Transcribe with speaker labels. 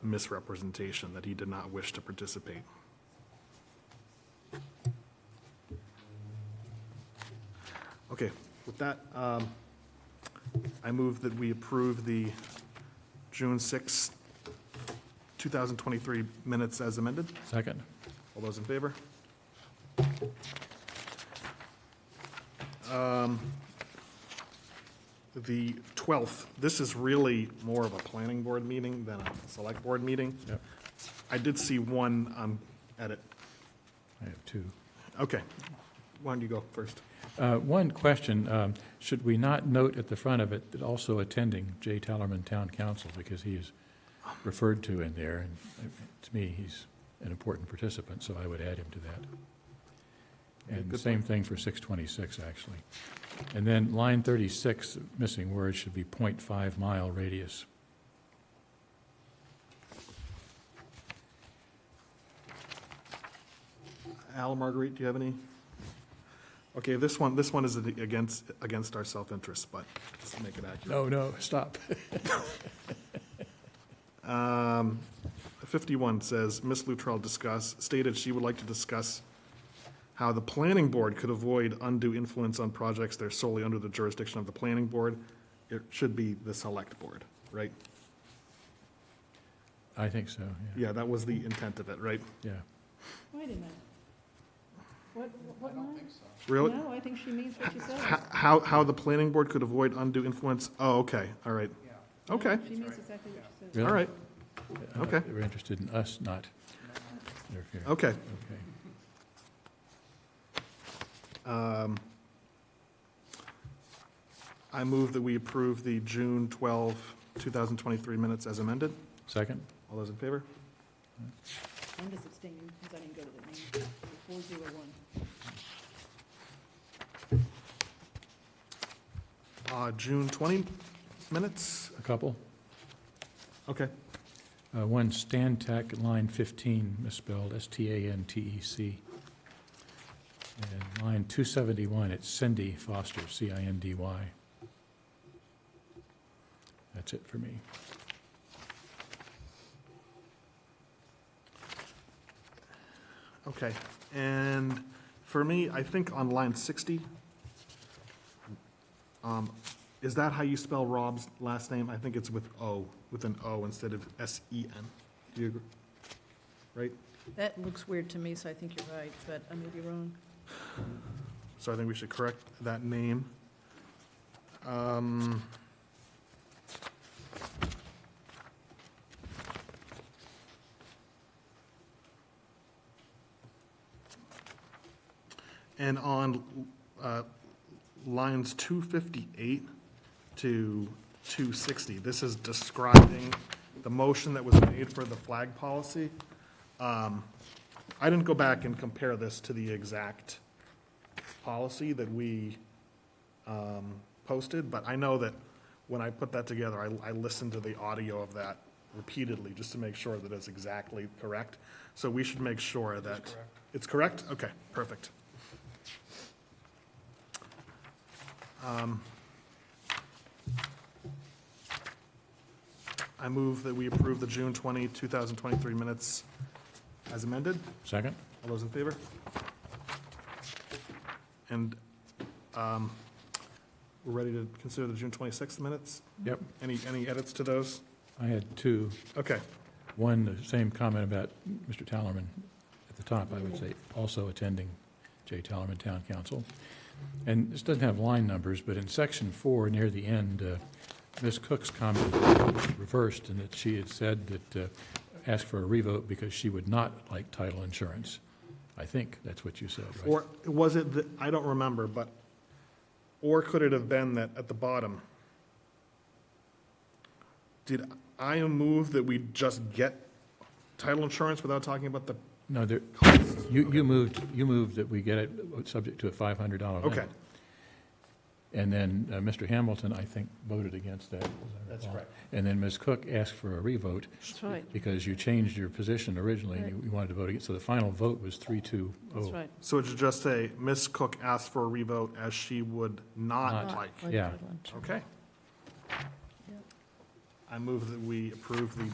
Speaker 1: misrepresentation that he did not wish to participate. Okay, with that, um, I move that we approve the June 6, 2023 minutes as amended.
Speaker 2: Second.
Speaker 1: All those in favor? Um, The 12th, this is really more of a planning board meeting than a select board meeting.
Speaker 2: Yep.
Speaker 1: I did see one um, edit.
Speaker 2: I have two.
Speaker 1: Okay. Why don't you go first?
Speaker 2: Uh, One question, um, should we not note at the front of it that also attending Jay Tellerman Town Council, because he is referred to in there, and uh, to me, he's an important participant, so I would add him to that. And the
Speaker 1: good
Speaker 2: same thing for 626, actually. And then line 36, missing word, should be .5 mile radius.
Speaker 1: Al, Marguerite, do you have any? Okay, this one, this one is against, against our self-interest, but just to make it accurate.
Speaker 2: No, no, stop.
Speaker 1: Um, 51 says, Ms. Luttrell discuss, stated she would like to discuss how the planning board could avoid undue influence on projects that are solely under the jurisdiction of the planning board. It should be the select board, right?
Speaker 2: I think so, yeah.
Speaker 1: Yeah, that was the intent of it, right?
Speaker 2: Yeah.
Speaker 3: Wait a minute. What, what line?
Speaker 1: Really?
Speaker 3: No, I think she means what she says.
Speaker 1: H- How, how the planning board could avoid undue influence? Oh, okay, all right.
Speaker 3: No,
Speaker 1: Okay,
Speaker 3: She means exactly what she says.
Speaker 2: Really?
Speaker 1: all right,
Speaker 2: Uh,
Speaker 1: Okay. Oh.
Speaker 2: They were interested in us not interfering.
Speaker 1: okay.
Speaker 2: Okay.
Speaker 1: Um, I move that we approve the June 12, 2023 minutes as amended.
Speaker 2: Second?
Speaker 1: All those in favor?
Speaker 3: I'm just abstaining because I didn't go to the meeting. Four zero one.
Speaker 1: Uh, June 20 minutes?
Speaker 2: A couple?
Speaker 1: Okay.
Speaker 2: Uh, One, Stantec, line 15, misspelled, S-T-A-N-T-E-C. E And line 271, it's Cindy Foster, C-I-N-D-Y. That's it for me.
Speaker 1: Okay. And for me, I think on line 60, um, is that how you spell Rob's last name? I think it's with O, with an O instead of S-E-N. Do you agree? Right?
Speaker 3: That looks weird to me, so I think you're right, but I may be wrong.
Speaker 1: So I think we should correct that name. Um, And on uh, lines 258 to 260, this is describing the motion that was made for the flag policy. Um, I didn't go back and compare this to the exact policy that we um, posted, but I know that when I put that together, I, I listened to the audio of that repeatedly, just to make sure that it's exactly correct. So we should make sure that. It's correct? Okay, perfect. Um, I move that we approve the June 20, 2023 minutes as amended.
Speaker 2: Second?
Speaker 1: All those in favor? And um, we're ready to consider the June 26th minutes?
Speaker 2: Yep.
Speaker 1: Any, any edits to those?
Speaker 2: I had two.
Speaker 1: Okay,
Speaker 2: One, the same comment about Mr. Tallerman at the top, I would say, also attending J. Tallerman Town Council. And this doesn't have line numbers, but in section four, near the end, uh, Ms. Cook's comment was reversed in that she had said that, uh, asked for a revote because she would not like title insurance. I think that's what you said, right?
Speaker 1: or was it, the- I don't remember, but, or could it have been that at the bottom? Did I move that we just get title insurance without talking about the
Speaker 2: No, there,
Speaker 1: cost?
Speaker 2: you, you moved, you moved that we get it uh, subject to a five hundred dollar limit.
Speaker 1: Okay.
Speaker 2: And then uh, Mr. Hamilton, I think, voted against that. as I
Speaker 1: That's
Speaker 2: recall.
Speaker 1: correct.
Speaker 2: And then Ms. Cook asked for a revote
Speaker 3: That's right,
Speaker 2: because you changed your position originally and you- you wanted to vote against. So the final vote was three, two,
Speaker 3: that's
Speaker 2: oh.
Speaker 3: right.
Speaker 1: So it should just say, Ms. Cook asked for a revote as she would not
Speaker 2: Not
Speaker 1: like.
Speaker 2: Yeah.
Speaker 1: Okay.
Speaker 3: Yep.
Speaker 1: I move that we approve the